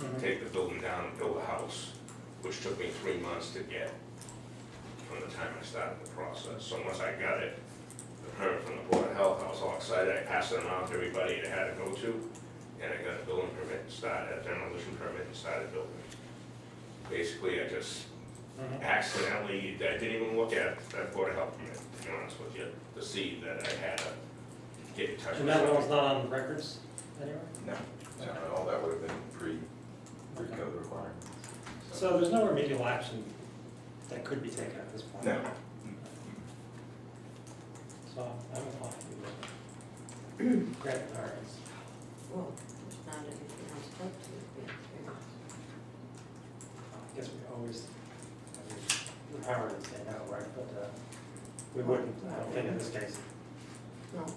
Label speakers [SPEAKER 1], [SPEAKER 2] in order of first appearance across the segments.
[SPEAKER 1] Mm-hmm.
[SPEAKER 2] take the building down and build a house, which took me three months to get from the time I started the process. So once I got it, the permit from the Board of Health, I was all excited, I passed it on to everybody that I had to go to, and I got a building permit and started, a demolition permit and started building. Basically, I just accidentally, I didn't even look at that Board of Health permit, to be honest with you, to see that I had to get in touch with
[SPEAKER 1] And that one was
[SPEAKER 2] somebody.
[SPEAKER 1] not on records anywhere?
[SPEAKER 3] No, no, and all that would have been pre, pre-code requirement.
[SPEAKER 1] So there's no remedial action that could be taken at this point?
[SPEAKER 3] No.
[SPEAKER 1] So I'm applying to do that. Grant variance.
[SPEAKER 4] Well, there's not anything else to talk to.
[SPEAKER 1] I guess we always, I mean, the power to say no, right, but uh, we wouldn't, I don't think in this case.
[SPEAKER 4] No,
[SPEAKER 1] So,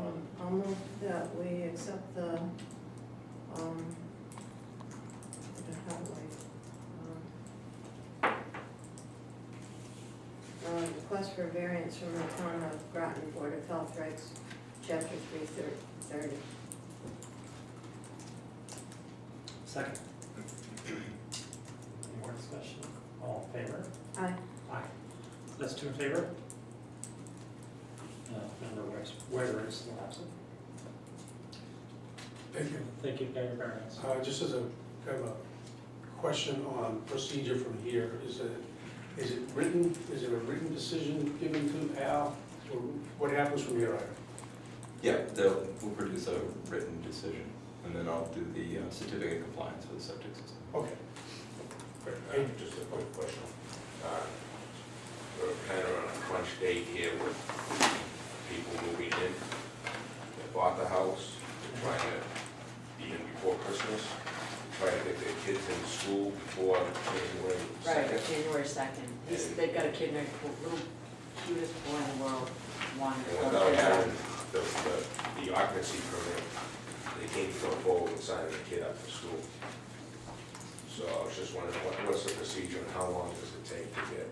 [SPEAKER 4] um, I'll move that we accept the, um, the highway, um, uh, request for variance from the town of Groton Board of Health Regs, chapter three thirty.
[SPEAKER 1] Second. Any more discussion? All in favor?
[SPEAKER 4] Aye.
[SPEAKER 1] Aye. That's two in favor? Uh, No, member Wares, Waver is still absent.
[SPEAKER 5] Thank you.
[SPEAKER 1] Thank you, Mayor Barron's.
[SPEAKER 5] Uh, Just as a kind of a question on procedure from here, is it, is it written, is there a written decision given to Al? Or What happens from here?
[SPEAKER 3] Yeah, they'll, we'll produce a written decision, and then I'll do the uh, certificate of compliance for the septic system.
[SPEAKER 5] Okay,
[SPEAKER 2] Uh, Just a quick question. Uh, We're kind of on a crunch date here with people moving in. They bought the house, they're trying to be in before Christmas, trying to get their kids in school before January second.
[SPEAKER 6] Right, January second. He's, they've got a kid, named the little cutest boy in the world,
[SPEAKER 2] And
[SPEAKER 6] wonderful.
[SPEAKER 2] without having the, the- the occupancy permit, they can't go forward and sign the kid up for school. So I was just wondering, what, what's the procedure and how long does it take to get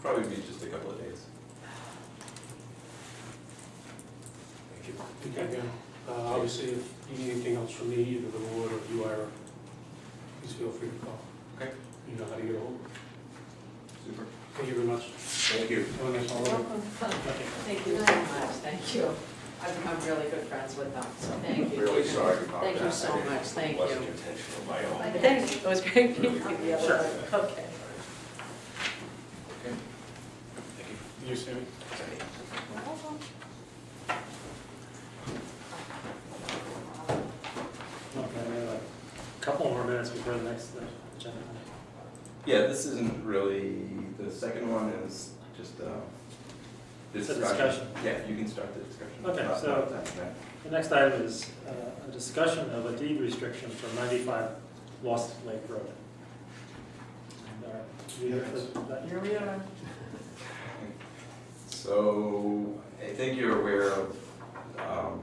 [SPEAKER 3] Probably be just a couple of days.
[SPEAKER 2] Thank you.
[SPEAKER 5] Okay, yeah. Uh, Obviously, if you need anything else from me, either the board or you, Ira, please feel free to call.
[SPEAKER 3] Okay.
[SPEAKER 5] You know how to get a hold.
[SPEAKER 3] Super.
[SPEAKER 5] Thank you very much.
[SPEAKER 2] Thank you.
[SPEAKER 5] Have a nice holiday.
[SPEAKER 4] Welcome.
[SPEAKER 6] Thank you so much, thank you. I've become really good friends with them, so thank you.
[SPEAKER 2] Really sorry about that.
[SPEAKER 6] Thank you so
[SPEAKER 2] I didn't-
[SPEAKER 6] much, thank you.
[SPEAKER 2] Wasn't intentional, my own.
[SPEAKER 6] But Thank you, it was great meeting you the
[SPEAKER 1] Sure.
[SPEAKER 6] other day. Okay.
[SPEAKER 3] Okay. Thank you.
[SPEAKER 5] You, Sammy?
[SPEAKER 1] Okay, we have a couple more minutes before the next uh, agenda.
[SPEAKER 3] Yeah, this isn't really, the second one is just, uh,
[SPEAKER 1] It's a
[SPEAKER 3] discussion. Yeah, you can start the discussion.
[SPEAKER 1] Okay,
[SPEAKER 3] Not-
[SPEAKER 1] so-
[SPEAKER 3] not that, that.
[SPEAKER 1] The next item is uh, a discussion of a deed restriction for 95 Lost Lake Road. And, uh, do you have that-
[SPEAKER 6] Here we are.
[SPEAKER 3] So, I think you're aware of um,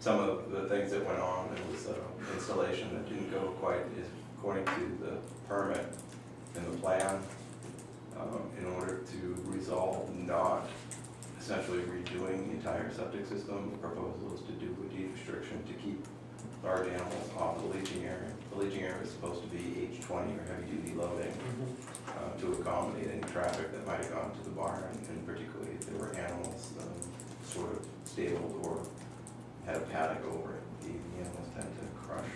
[SPEAKER 3] some of the things that went on. It was uh, installation that didn't go quite as according to the permit and the plan. um, In order to resolve not essentially redoing the entire septic system, the proposal is to do a deed restriction to keep large animals off the leaching area. The leaching area is supposed to be H20 or heavy-duty loading
[SPEAKER 1] Mhm.
[SPEAKER 3] uh, to accommodate any traffic that might have gone to the barn, and particularly if there were animals um, sort of stabled or had a paddock over it. The the animals tend to crush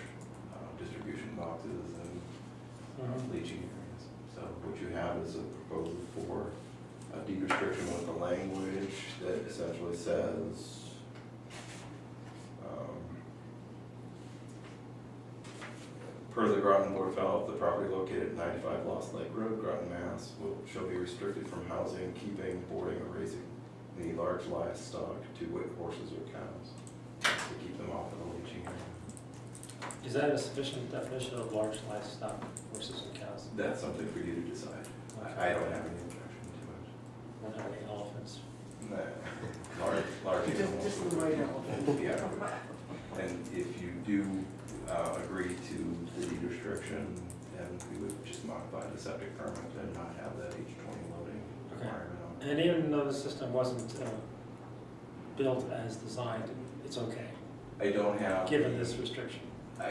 [SPEAKER 3] uh, distribution boxes and
[SPEAKER 1] Mhm.
[SPEAKER 3] leaching areas. So what you have is a proposal for a deed restriction with the language that essentially says, um, per the Groton Board of Health, the property located at ninety-five Lost Lake Road, Groton, Mass, will, shall be restricted from housing, keeping, boarding, or raising any large livestock to wit horses or cows, to keep them off of the leaching area.
[SPEAKER 1] Is that a sufficient definition of large livestock, horses and cows?
[SPEAKER 3] That's something for you to decide. I I don't have any objection to it.
[SPEAKER 1] Or not any elephants?
[SPEAKER 3] No, large, large
[SPEAKER 6] Just-
[SPEAKER 3] animals.
[SPEAKER 6] just the
[SPEAKER 3] would-
[SPEAKER 6] right animal.
[SPEAKER 3] Yeah, and if you do uh, agree to the deed restriction, then we would just modify the septic permit and not have that H twenty loading
[SPEAKER 1] Okay.
[SPEAKER 3] requirement on it.
[SPEAKER 1] And even though the system wasn't uh, built as designed, it's okay,
[SPEAKER 3] I don't have.
[SPEAKER 1] given
[SPEAKER 3] the-
[SPEAKER 1] this restriction.